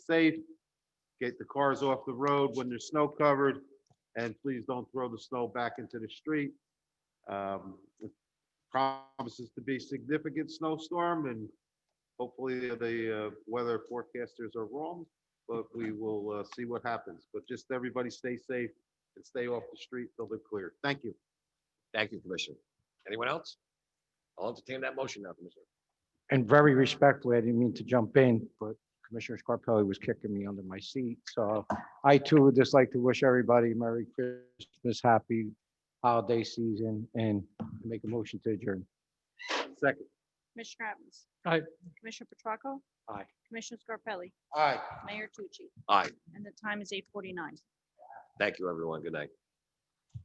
safe, get the cars off the road when they're snow covered, and please don't throw the snow back into the street. Um, it Promises to be significant snowstorm, and hopefully the uh, weather forecasters are wrong, but we will uh, see what happens. But just everybody stay safe and stay off the street till they're cleared. Thank you. Thank you, Commissioner. Anyone else? I'll entertain that motion now, Commissioner. And very respectfully, I didn't mean to jump in, but Commissioner Scarpelli was kicking me under my seat. So I too would just like to wish everybody Merry Christmas, Happy Holiday Season, and make a motion to adjourn. Second. Commissioner Evans. Aye. Commissioner Petracca. Aye. Commissioner Scarpelli, Aye. Mayor Tucci, Aye, and the time is eight forty-nine. thank you, everyone. Good night.